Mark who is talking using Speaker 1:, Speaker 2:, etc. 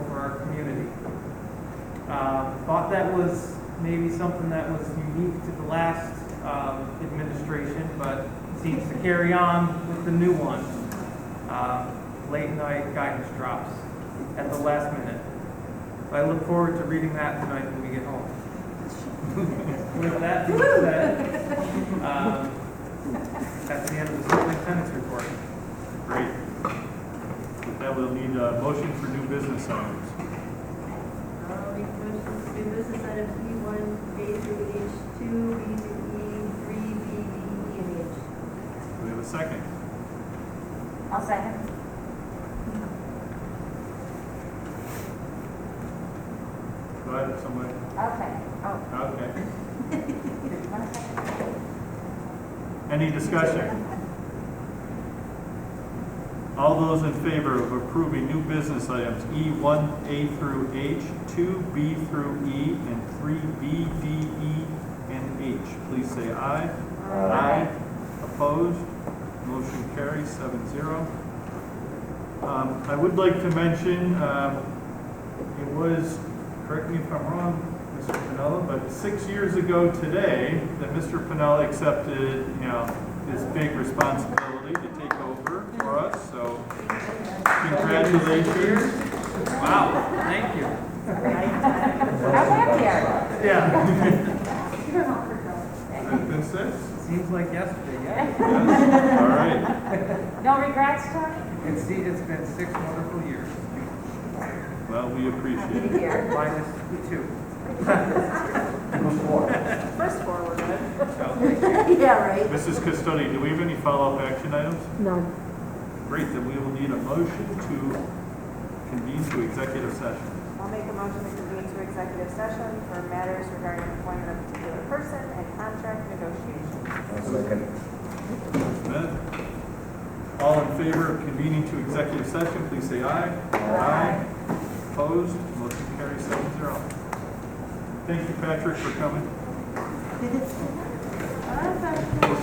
Speaker 1: Uh, thought that was maybe something that was unique to the last um, administration, but seems to carry on with the new one. Um, Late night guidance drops at the last minute. I look forward to reading that tonight when we get home. With that being said, um, that's the end of the superintendent's report.
Speaker 2: Great. With that, we'll need a motion for new business items.
Speaker 3: Uh, we motion to do business items E one, A through H two, B through E, three, B, D, E, and H.
Speaker 2: We have a second.
Speaker 4: I'll second.
Speaker 2: Go ahead, somebody.
Speaker 4: Okay. Oh,
Speaker 2: Okay.
Speaker 4: one second.
Speaker 2: Any discussion? All those in favor of approving new business items E1, A through H, 2B through E, and 3B, D, E, and H, please say aye.
Speaker 4: Aye.
Speaker 2: Opposed? Motion carries seven zero. Um, I would like to mention, um, it was, correct me if I'm wrong, Mr. Pinella, but six years ago today, that Mr. Pinella accepted, you know, his big responsibility to take over for us, so congratulations.
Speaker 1: Wow, thank you.
Speaker 4: I went here.
Speaker 2: Yeah.
Speaker 4: You were not for girls.
Speaker 2: Has it been six?
Speaker 1: Seems like yesterday, yeah.
Speaker 2: Yes, all right.
Speaker 4: No regrets, Tony?
Speaker 1: It's, it's been six wonderful years,
Speaker 2: Well, we appreciate it.
Speaker 4: Here.
Speaker 1: minus two.
Speaker 4: First four were good.
Speaker 3: Yeah, right.
Speaker 2: Mrs. Custody, do we have any follow-up action items? No. Great, then we will need a motion to convene to executive session.
Speaker 5: I'll make a motion to convene to executive session for matters regarding employment of a particular person and contract negotiations.
Speaker 2: Ms. Smith? All in favor of convening to executive session, please say aye. Aye. Opposed? Motion carries seven zero. Thank you, Patrick, for coming.
Speaker 3: Well, that's not-
Speaker 2: We'll